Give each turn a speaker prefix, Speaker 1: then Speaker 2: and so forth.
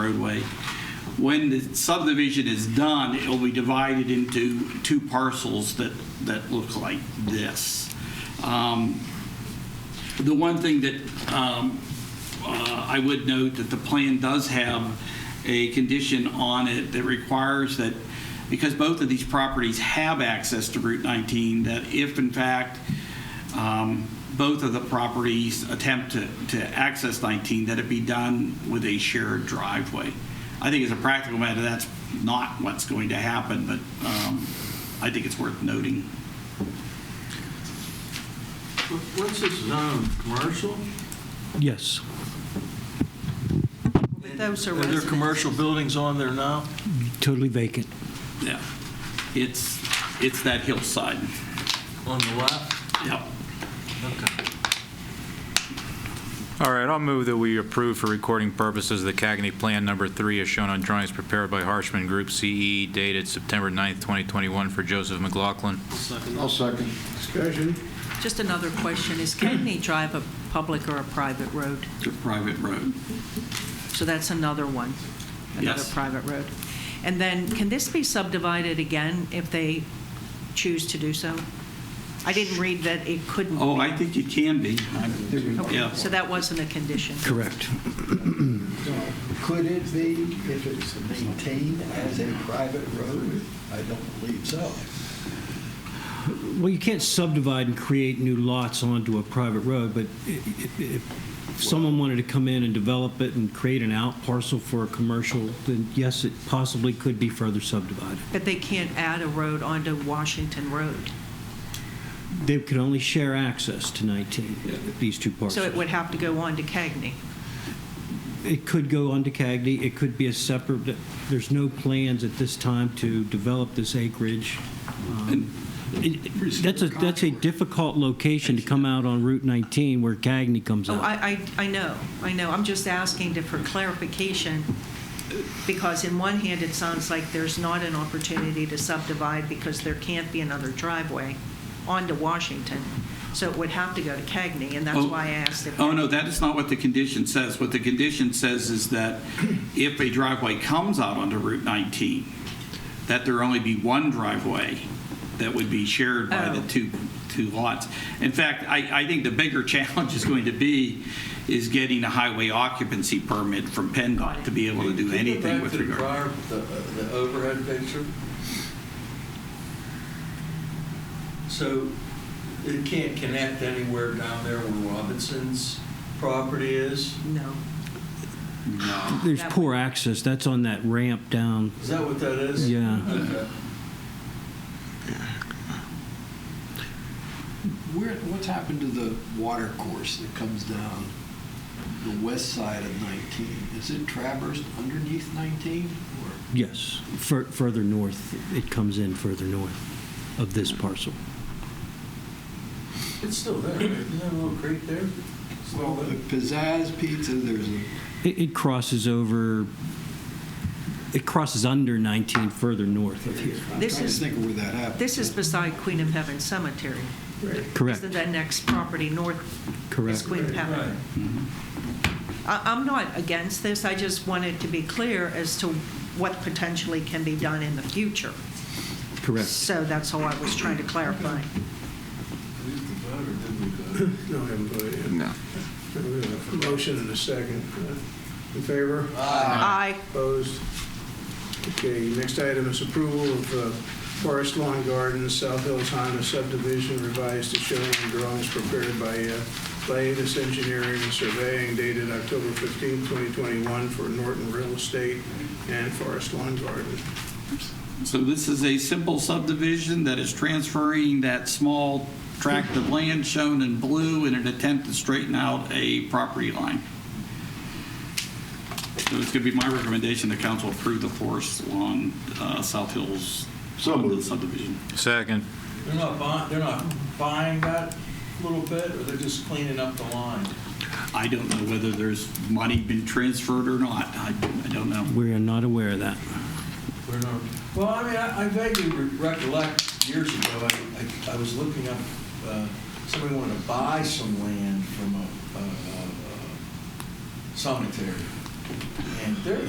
Speaker 1: roadway. When the subdivision is done, it will be divided into two parcels that, that look like this. Um, The one thing that um, uh, I would note that the plan does have a condition on it that requires that, because both of these properties have access to Route 19, that if in fact um, both of the properties attempt to, to access 19, that it be done with a shared driveway. I think as a practical matter, that's not what's going to happen, but um, I think it's worth noting.
Speaker 2: What's this zone, commercial?
Speaker 3: Yes,
Speaker 4: But those are
Speaker 2: Are there
Speaker 4: residents.
Speaker 2: commercial buildings on there now?
Speaker 3: totally vacant.
Speaker 1: Yeah. It's, it's that hillside.
Speaker 2: On the left?
Speaker 1: Yep.
Speaker 2: Okay.
Speaker 5: All right, I'll move that we approve for recording purposes the Cagney Plan Number Three as shown on drawings prepared by Harshman Group CE dated September 9th, 2021 for Joseph McLaughlin.
Speaker 6: I'll second. Discussion?
Speaker 4: Just another question, is Cagney Drive a public or a private road?
Speaker 1: It's a private road.
Speaker 4: So that's another one, another
Speaker 1: Yes.
Speaker 4: private road. And then, can this be subdivided again if they choose to do so? I didn't read that it couldn't.
Speaker 1: Oh,
Speaker 4: be.
Speaker 1: I think it can be. I- Yeah.
Speaker 4: Okay, so that wasn't a condition.
Speaker 3: Correct.
Speaker 6: Could it be if it's maintained as a private road? I don't believe so.
Speaker 3: Well, you can't subdivide and create new lots onto a private road, but i- i- if someone wanted to come in and develop it and create an out parcel for a commercial, then yes, it possibly could be further subdivided.
Speaker 4: But they can't add a road onto Washington Road.
Speaker 3: They could only share access to 19, these two parcels.
Speaker 4: So it would have to go on to Cagney.
Speaker 3: It could go on to Cagney, it could be a separate, there's no plans at this time to develop this acreage. Um, it- it- That's a, that's a difficult location to come out on Route 19 where Cagney comes
Speaker 4: Oh,
Speaker 3: out.
Speaker 4: I, I, I know, I know. I'm just asking to- for clarification, because in one hand, it sounds like there's not an opportunity to subdivide because there can't be another driveway onto Washington. So it would have to go to Cagney, and that's
Speaker 1: Oh.
Speaker 4: why I asked if.
Speaker 1: Oh, no, that is not what the condition says. What the condition says is that if a driveway comes out onto Route 19, that there only be one driveway that would be shared by the
Speaker 4: Oh.
Speaker 1: two, two lots. In fact, I, I think the bigger challenge is going to be is getting a highway occupancy permit from PennDOT to be able to do anything with regard.
Speaker 2: the prior, the, the overhead picture? So it can't connect anywhere down there where Robinson's property is?
Speaker 4: No.
Speaker 3: There's
Speaker 4: that
Speaker 3: poor access, that's on that ramp down,
Speaker 2: Is that what that is?
Speaker 3: Yeah.
Speaker 2: Okay.
Speaker 7: Where, what's happened to the water course that comes down the west side of 19? Is it traversed underneath 19? Or
Speaker 3: yes, fur- further north, it comes in further north of this parcel.
Speaker 2: It's still there, right? Isn't there a little creek there? It's all
Speaker 7: the
Speaker 2: there.
Speaker 7: Pizzazz Pizza, there's a,
Speaker 3: It it crosses over, it crosses under 19 further north of here.
Speaker 7: I'm trying to
Speaker 4: This is-
Speaker 7: think of where that happened.
Speaker 4: This is beside Queen of Heaven Cemetery.
Speaker 3: Correct,
Speaker 4: Isn't that next property north is
Speaker 3: correct.
Speaker 4: Queen of Heaven?
Speaker 2: Right.
Speaker 4: I- I'm not against this, I just wanted to be clear as to what potentially can be done in the future.
Speaker 3: Correct.
Speaker 4: So that's all I was trying to clarify.
Speaker 2: We used to vote or didn't we vote?
Speaker 8: No, I haven't voted yet. No. We have a motion and a second. In favor?
Speaker 4: Aye.
Speaker 8: Opposed? Okay, next item is approval of uh, Forest Lawn Gardens, South Hills Honda subdivision revised to show in drawings prepared by uh, Laetus Engineering and Surveying dated October 15, 2021 for Norton Real Estate and Forest Lawn Garden.
Speaker 1: So this is a simple subdivision that is transferring that small tract of land shown in blue in an attempt to straighten out a property line. So it's going to be my recommendation the council approve the forest lawn, uh, South Hills subdivision.
Speaker 5: Second.
Speaker 2: They're not buying, they're not buying that little bit, or they're just cleaning up the line?
Speaker 1: I don't know whether there's money been transferred or not. I I don't know.
Speaker 3: We are not aware of that.
Speaker 2: We're not- Well, I mean, I I vaguely re- recollect years ago, I, I- I was looking up, uh, somebody wanted to buy some land from a, a- a a cemetery. And there,